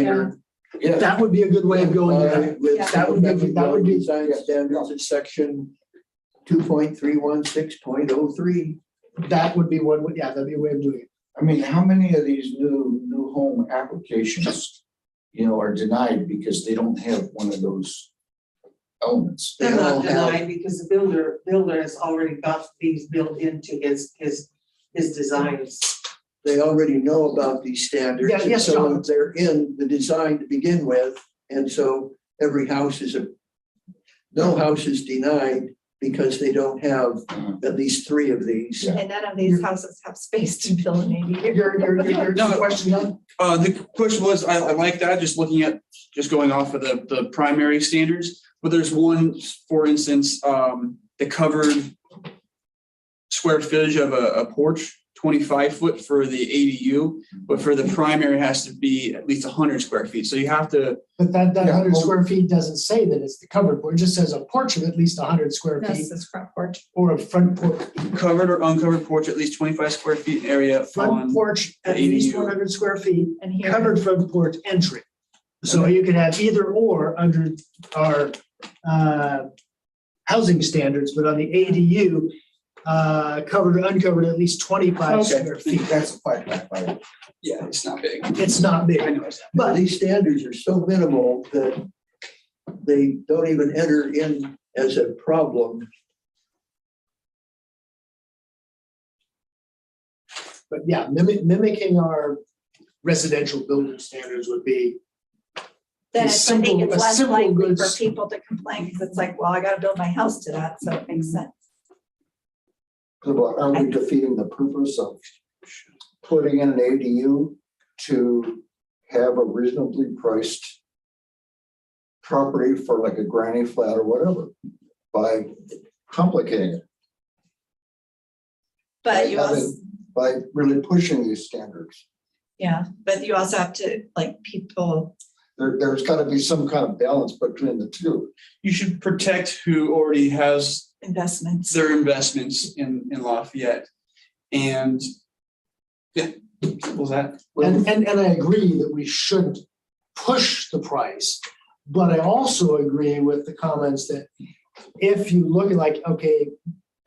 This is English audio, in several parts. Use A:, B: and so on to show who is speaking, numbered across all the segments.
A: Minor.
B: Yeah.
C: That would be a good way of going, at it.
A: Yeah.
C: that would be, that would be
B: Design standards in section two point three one six point oh three.
C: that would be one, way- yeah, that'd be a way of doing it.
D: Uh, I mean, how many of these new, new home applications, you know, are denied because they don't have one of those elements?
A: They're
B: all
A: not
B: have-
A: denied because the builder, builder has already got these built into his, his, his designs.
B: They already know about these standards.
C: Yeah, yes,
B: and so
C: John.
B: They're in the design to begin with, and so every house is a, no house is denied because they don't have at least three of these.
D: Yeah.
E: And none of these houses have space to build an ADU.
C: Your, your, your,
F: No,
C: your
F: but-
C: question, John?
F: Uh, the question was, I, I like that, just looking at, just going off of the, the primary standards, but there's one, for instance, um, the covered square footage of a, a porch, twenty-five foot for the ADU, but for the primary has to be at least hundred square feet, so you have to,
C: But that, that
D: Yeah,
C: hundred
D: well-
C: square feet doesn't say that it's the covered porch, it just says a porch of at least hundred square feet
E: This is front porch.
C: or a front porch.
F: covered or uncovered porch, at least twenty-five square feet in area
C: Front
F: on,
C: porch at
F: the
C: least
F: ADU.
C: one hundred square feet,
E: And here.
C: covered front porch entry. So you could have either or under our uh housing standards, but on the ADU, uh covered or uncovered at least twenty-five
F: Okay.
C: square feet.
D: That's a five by five.
F: yeah, it's not big.
C: It's not big.
F: I know, it's-
B: But these standards are so minimal that they don't even enter in as a problem.
C: But yeah, mimic, mimicking our residential building standards would be,
E: Then
C: a
E: it's- I think
C: simple- a
E: it's less
C: simple
E: likely for
C: goods-
E: people to complain because it's like, well, I gotta build my house to that, so it makes sense.
D: Are we defeating the purpose of putting in an ADU to have a reasonably priced property for like a granny flat or whatever by complicating it,
E: But you
D: Have
E: also,
D: by really pushing these standards?
E: yeah, but you also have to, like, people,
D: There, there's got to be some kind of balance between the two.
F: You should protect who already has
E: investments.
F: their investments in, in Lafayette. And yeah, simple as that.
C: and, and, and I agree that we should push the price. But I also agree with the comments that if you look at like, okay,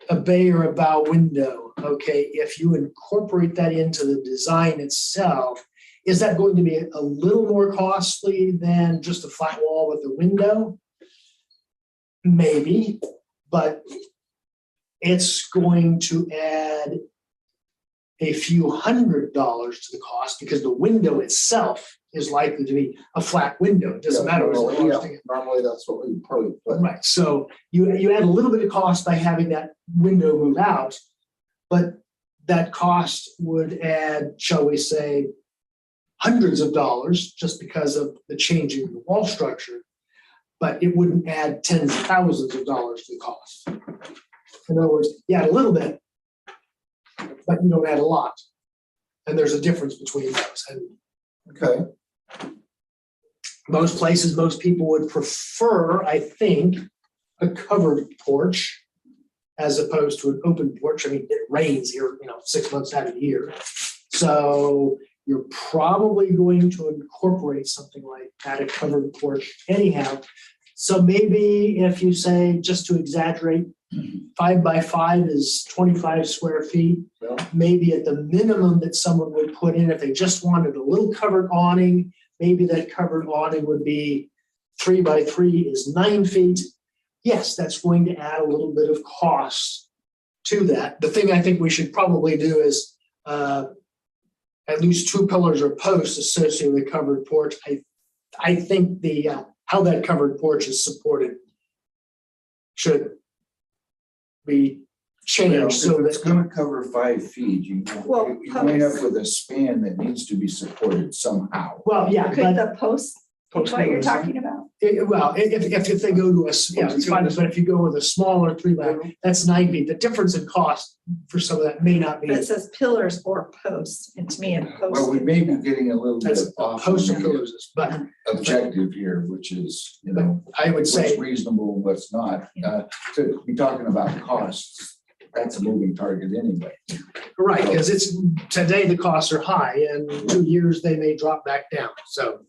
C: a bay or a bow window, okay, if you incorporate that into the design itself, is that going to be a little more costly than just a flat wall with a window? Maybe, but it's going to add a few hundred dollars to the cost because the window itself is likely to be a flat window. It doesn't matter. what's the
D: Yeah,
C: cost.
D: Normally, that's what we probably put.
C: Right, so you, you add a little bit of cost by having that window move out, but that cost would add, shall we say, hundreds of dollars just because of the changing of the wall structure, but it wouldn't add tens of thousands of dollars to the cost. In other words, you add a little bit, but you don't add a lot. And there's a difference between those. And
D: Okay,
C: most places, most people would prefer, I think, a covered porch as opposed to an open porch. I mean, it rains here, you know, six months out of the year. So you're probably going to incorporate something like that, a covered porch anyhow. So maybe if you say, just to exaggerate, five by five is twenty-five square feet.
D: Yeah.
C: Maybe at the minimum that someone would put in, if they just wanted a little covered awning, maybe that covered awning would be three by three is nine feet. Yes, that's going to add a little bit of cost to that. The thing I think we should probably do is uh, at least two pillars or posts associated with the covered porch. I, I think the, uh, how that covered porch is supported should be changed so
D: so
C: that
D: it's gonna cover five feet, you,
E: Well,
D: you you end up with a span that needs to be supported somehow.
C: Well, yeah, but,
E: Could the post, what you're talking about?
C: it- well, i- if, if, if they go to a, s- yeah, it's fine, but if you go with a smaller three by that's nine feet. The difference in cost for some of that may not
E: But
C: be,
E: it says pillars or posts, and to me, a
D: Well,
E: post.
D: we may be getting a little bit
C: that's
D: off of
C: post
D: the
C: pillars, but
D: objective here, which is, you know,
C: I would
D: what's
C: say,
D: reasonable, and what's not. Uh, To be talking about costs, that's a moving target anyway.
C: right, because it's, today the costs are high and in two years they may drop back down. So